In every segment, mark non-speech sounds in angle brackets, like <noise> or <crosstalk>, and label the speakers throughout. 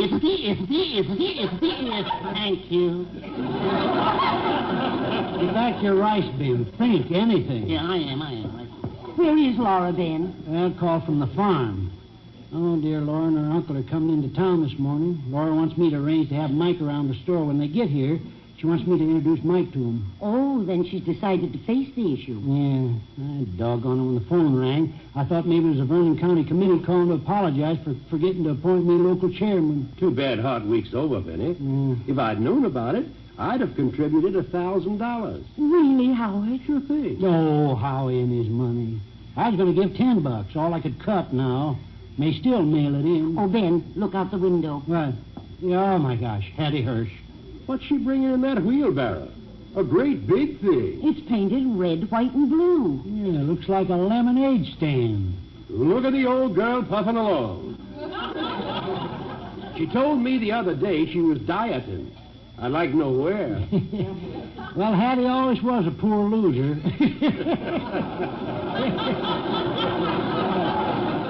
Speaker 1: Ifty, ifty, ifty, ifty, if. Thank you.
Speaker 2: Get back your rice bin. Think anything.
Speaker 1: Yeah, I am, I am. I-
Speaker 3: Where is Laura Ben?
Speaker 2: Well, call from the farm. Oh, dear, Laura and her uncle are coming into town this morning. Laura wants me to arrange to have Mike around the store when they get here. She wants me to introduce Mike to him.
Speaker 3: Oh, then she's decided to face the issue.
Speaker 2: Yeah, I doggone it when the phone rang. I thought maybe it was a Vernon County committee calling to apologize for forgetting to appoint me local chairman.
Speaker 4: Too bad hard week's over, Benny.
Speaker 1: Mm.
Speaker 2: Yeah.
Speaker 4: If I'd known about it, I'd have contributed a thousand dollars.
Speaker 3: Really, Howard?
Speaker 4: Sure thing.
Speaker 2: Oh, Howie and his money. I was going to give ten bucks, all I could cut now. May still mail it in.
Speaker 3: Oh, Ben, look out the window.
Speaker 2: Right. Yeah, oh, my gosh, Hattie Hirsch.
Speaker 4: What's she bringing in that wheelbarrow? A great big thing.
Speaker 3: It's painted red, white, and blue.
Speaker 2: Yeah, looks like a lemonade stand.
Speaker 4: Look at the old girl puffing along. she told me the other day she was dieting. I'd like to know
Speaker 3: <laughs>
Speaker 4: where.
Speaker 2: <laughs> Well, Hattie always was a poor loser. <laughs>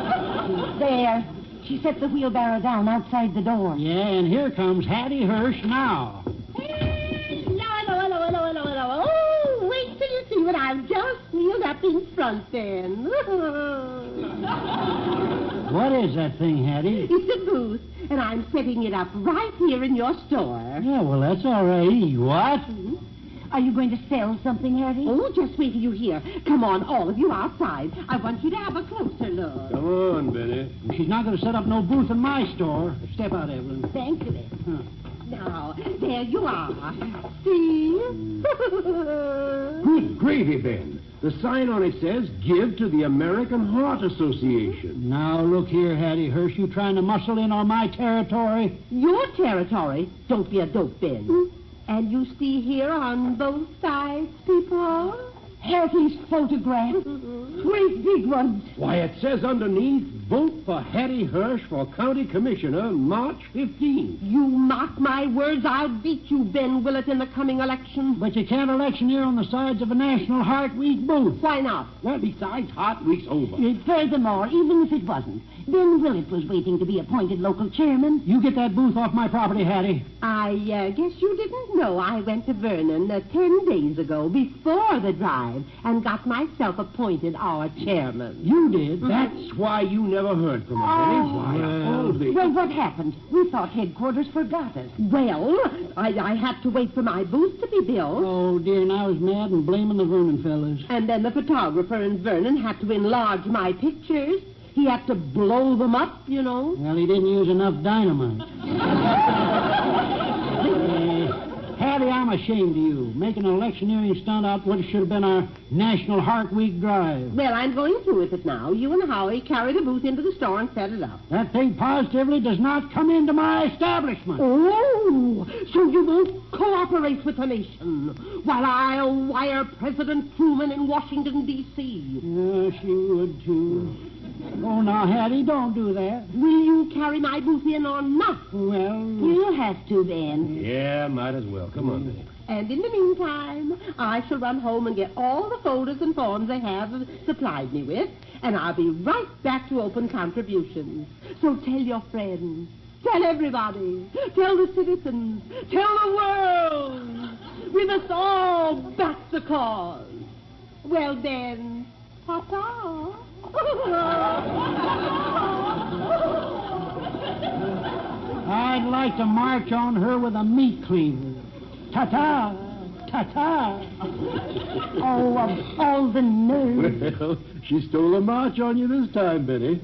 Speaker 3: There. She set the wheelbarrow down outside the door.
Speaker 2: yeah, and here comes Hattie Hirsch now.
Speaker 1: Hello, hello, hello, hello, hello. Oh, wait till you see what I've just wheeled up in front then. <laughs>
Speaker 2: What is that thing, Hattie?
Speaker 1: it's a booth, and I'm setting it up right here in your store.
Speaker 2: Yeah, well, that's all right. What?
Speaker 3: Are you going to sell something, Hattie?
Speaker 1: Oh, just wait till you hear. Come on, all of you outside. I want you to have a closer look.
Speaker 4: Come on, Benny.
Speaker 2: She's not going to set up no booth in my store. Step out, Evelyn.
Speaker 1: Thank you.
Speaker 2: Huh.
Speaker 1: Now, there you are. <laughs> See?
Speaker 4: Good gravy, Ben. The sign on it says, Give to the American Heart Association.
Speaker 2: Now, look here, Hattie Hirsch. You trying to muscle in on my territory?
Speaker 1: Your territory. Don't be a dope, Ben.
Speaker 3: Hmm?
Speaker 1: And you see here on both sides, people?
Speaker 3: Hattie's photograph. Great big ones.
Speaker 4: Why, it says underneath, Vote for Hattie Hirsch for County Commissioner March 15th.
Speaker 1: You mock my words, I'll beat you, Ben Willett, in the coming election.
Speaker 2: But you can't electioneer on the sides of a National Heart Week booth.
Speaker 1: Why not?
Speaker 4: Well, besides, Heart Week's over.
Speaker 3: Furthermore, even if it wasn't, Ben Willett was waiting to be appointed local chairman.
Speaker 2: You get that booth off my property, Hattie.
Speaker 1: I uh, guess you didn't know I went to Vernon uh, ten days ago, before the drive, and got myself appointed our chairman. Mm-hmm.
Speaker 2: You did.
Speaker 4: That's why you never heard from
Speaker 2: Oh.
Speaker 4: her, Benny. Why,
Speaker 2: Well.
Speaker 4: all the-
Speaker 3: Well, what happened? We thought headquarters forgot us.
Speaker 1: Well, I, I had to wait for my booth to be built.
Speaker 2: Oh, dear, and I was mad and blaming the Vernon fellas.
Speaker 1: And then the photographer in Vernon had to enlarge my pictures. He had to blow them up, you know.
Speaker 2: Well, he didn't use enough <laughs> dynamite. Uh, Hattie, I'm ashamed of you. Making an electioneering stunt out what should have been our National Heart Week drive.
Speaker 1: Well, I'm going through with it now. You and Howie carry the booth into the store and set it up.
Speaker 2: That thing positively does not come into my establishment.
Speaker 1: Oh, so you won't cooperate with the nation while I'll wire President Truman in Washington, D.C.
Speaker 2: Yeah, she would, too. Oh, now, Hattie, don't do that.
Speaker 1: Will you carry my booth in or not?
Speaker 2: Well,
Speaker 3: You'll have to, Ben.
Speaker 4: Yeah, might as well. Come on, Benny.
Speaker 1: And in the meantime, I shall run home and get all the folders and forms they have supplied me with, and I'll be right back to open contributions. So tell your friends, tell everybody, tell the citizens, tell the world. We must all back the cause. Well then, papa.
Speaker 2: I'd like to march on her with a meat cleaver. Ta-ta! Ta-ta!
Speaker 3: Oh, of all the nerve.
Speaker 4: Well, she stole a march on you this time, Benny.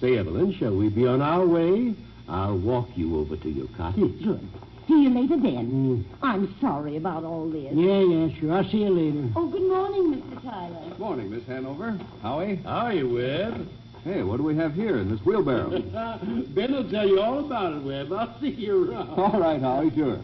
Speaker 4: Say, Evelyn, shall we be on our way? I'll walk you over to your cottage.
Speaker 3: Good. <laughs> See you later, Ben. I'm sorry about all this.
Speaker 2: Yeah, yeah, sure. I'll see you later.
Speaker 3: Oh, good morning, Mr. Tyler.
Speaker 5: Morning, Miss Hanover. Howie.
Speaker 4: How are you, Webb?
Speaker 5: Hey, what do we have here in this wheelbarrow?
Speaker 4: <laughs> ben will tell you all about it, Webb. I'll see you around.
Speaker 5: All right, Howie, sure.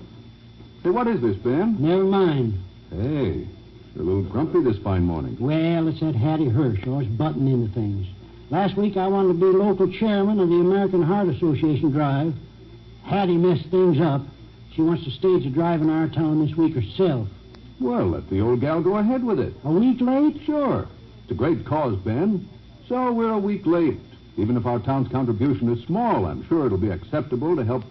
Speaker 5: Hey, what is this, Ben?
Speaker 2: Never mind.
Speaker 5: Hey, you're a little grumpy this fine morning.
Speaker 2: Well, it's that Hattie Hirsch always butting into things. Last week I wanted to be local chairman of the American Heart Association drive. Hattie messed things up. She wants to stage a drive in our town this week herself.
Speaker 5: Well, let the old gal go ahead with it.
Speaker 2: A week late?
Speaker 5: Sure. It's a great cause, Ben. So we're a week late.
Speaker 4: Even if our town's contribution is small, I'm sure it'll be acceptable to help